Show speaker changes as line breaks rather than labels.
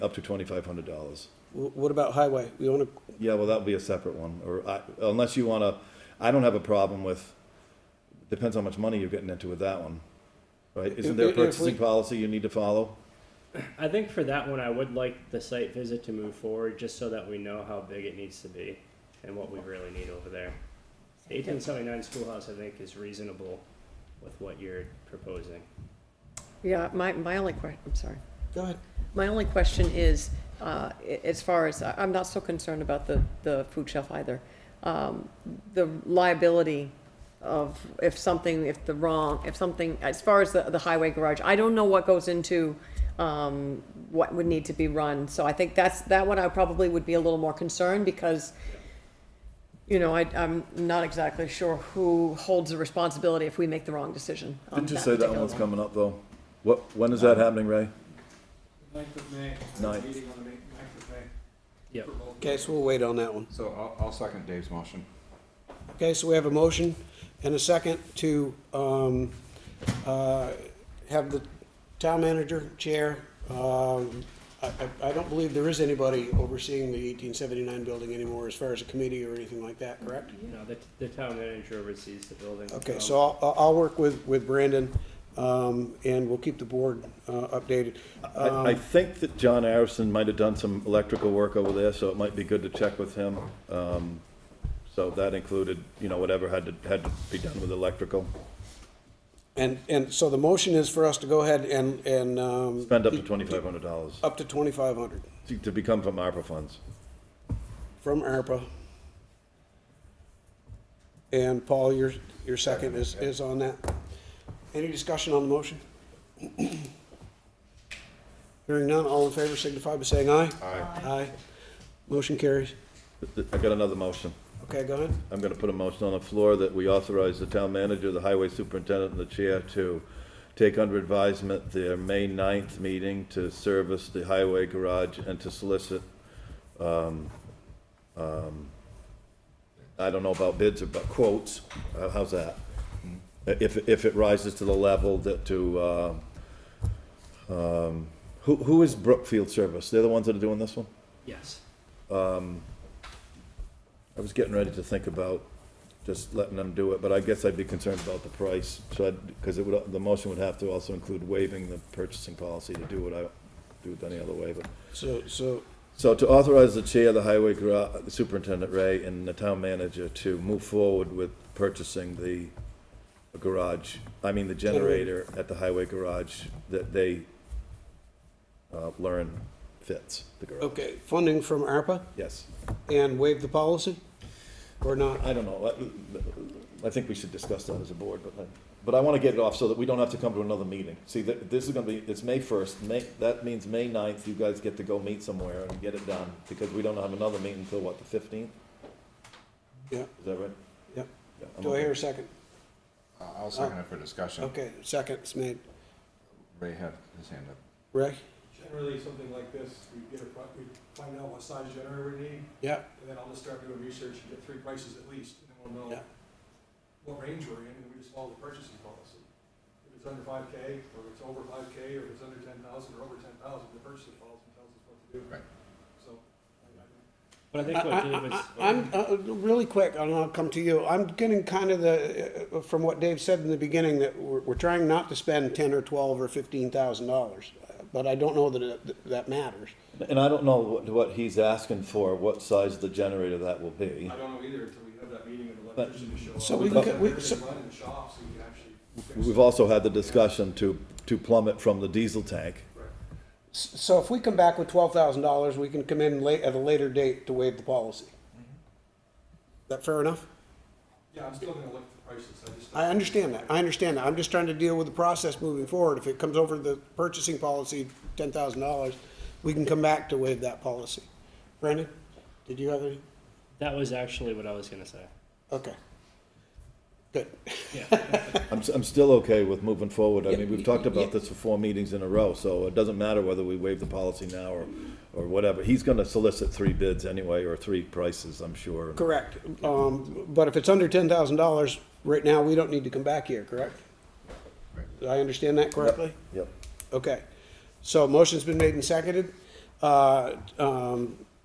up to twenty-five hundred dollars.
Wh- What about highway? We want to,
Yeah, well, that'll be a separate one, or I, unless you wanna, I don't have a problem with, depends how much money you're getting into with that one. Right, isn't there a
If- if we-
purchasing policy you need to follow?
I think for that one, I would like the site visit to move forward, just so that we know how big it needs to be and what we really need over there. Eighteen seventy-nine schoolhouse, I think, is reasonable with what you're proposing.
Yeah, my, my only que, I'm sorry.
go ahead.
My only question is, uh, a- as far as, I- I'm not so concerned about the, the food shelf either. Um, The liability of if something, if the wrong, if something, as far as the, the highway garage, I don't know what goes into um, what would need to be run. So I think that's, that one I probably would be a little more concerned because, you know, I, I'm not exactly sure who holds the responsibility if we make the wrong decision on
Didn't you say that
particular
one's coming up though? Um, What, when is that happening, Ray?
Ninth of May.
Ninth.
Meeting on the ma- ninth of May.
Yep.
For both.
Okay, so we'll wait on that one.
So I'll, I'll second Dave's motion.
Okay, so we have a motion and a second to um, uh, have the town manager, chair. um, I I- I don't believe there is anybody overseeing the 1879 building anymore as far as a committee or anything like that, correct?
You know, the, the town manager oversees the building.
Okay,
Um,
so I'll- I'll, I'll work with, with Brandon, um, and we'll keep the board uh, updated.
I,
um,
I think that John Arison might have done some electrical work over there, so it might be good to check with him. Um, so that included, you know, whatever had to, had to be done with electrical.
And, and so the motion is for us to go ahead and, and. um,
Spend up to twenty-five hundred dollars
Up to 2,500
to become from ARPA funds.
from ARPA. And Paul, your, your second is, is on that. Any discussion on the motion? Hearing none, all in favor signify by saying aye.
Aye.
Aye. Motion carries.
I got another motion.
Okay, go ahead.
I'm gonna put a motion on the floor that we authorize the town manager, the highway superintendent, and the chair to take under advisement their May 9th meeting to service the highway garage and to solicit, um, um, I don't know about bids or about quotes, Uh, how's that? If, if it rises to the level that to, uh, um, who, who is Brookfield Service? They're the ones that are doing this one?
Yes.
I was getting ready to think about just letting them do it, but I guess I'd be concerned about the price, so I'd, because it would, the motion would have to also include waiving the purchasing policy to do what I, do it any other way, but.
So, so
So to authorize the chair, the highway gra- superintendent, Ray, and the town manager to move forward with purchasing the garage, I mean, the generator at the highway garage that they, uh, learn fits the garage.
Okay, funding from ARPA
Yes.
and waive the policy or not?
I don't know, I, I think we should discuss that as a board, but, I- but I wanna get it off so that we don't have to come to another meeting. See, that, this is gonna be, it's May first, May, that means May 9th. you guys get to go meet somewhere and get it done, because we don't have another meeting until what, the fifteenth,
Yeah,
is that right?
yeah.
Yeah, I'm
Do I
okay.
hear a second?
I- Uh, I'll second it for discussion.
Okay, second's made.
Ray had his hand up.
Ray?
Generally, something like this, we get a, pro- we find out what size generator we need,
Yeah,
and then I'll just start doing research and get three prices at least, and then we'll know
Yeah.
what range we're in, and we just follow the purchasing policy. If it's under five K, or if it's over five K, or if it's under ten thousand, or over ten thousand, the purchasing policy tells us what to do.
Right.
So, I- I-
But I think what Dave
I-
was.
I- I'm, uh, really quick, and I'll come to you, I'm getting kind of the, uh, from what Dave said in the beginning, that we're, we're trying not to spend ten or twelve or fifteen thousand dollars, but I don't know that, it- that matters.
And I don't know what, what he's asking for, what size the generator that will be.
I don't know either until we have that meeting and the
But-
electrician to show up.
So we
Let
could- we-
everything
so-
Run in the shop, so we can actually. fix
We've
it.
also had the discussion to, to plummet from the diesel tank.
Right.
S- So if we come back with twelve thousand dollars, we can come in late, at a later date to waive the policy. That fair enough?
Yeah, I'm still gonna look at the prices, I just.
I understand that, I understand that, I'm just trying to deal with the process moving forward, if it comes over the purchasing policy, ten thousand dollars, we can come back to waive that policy. Brandon, did you have any?
That was actually what I was gonna say.
Okay. Good.
I'm, s- I'm still okay with moving forward. I mean, we've talked
Yeah, yeah.
about this for four meetings in a row, so it doesn't matter whether we waive the policy now or, or whatever. He's gonna solicit three bids anyway, or three prices, I'm sure.
Correct. Um, but if it's under ten thousand dollars, right now, we don't need to come back here, correct? Did I understand that correctly?
Yep.
Okay. So motion's been made and seconded. uh, um,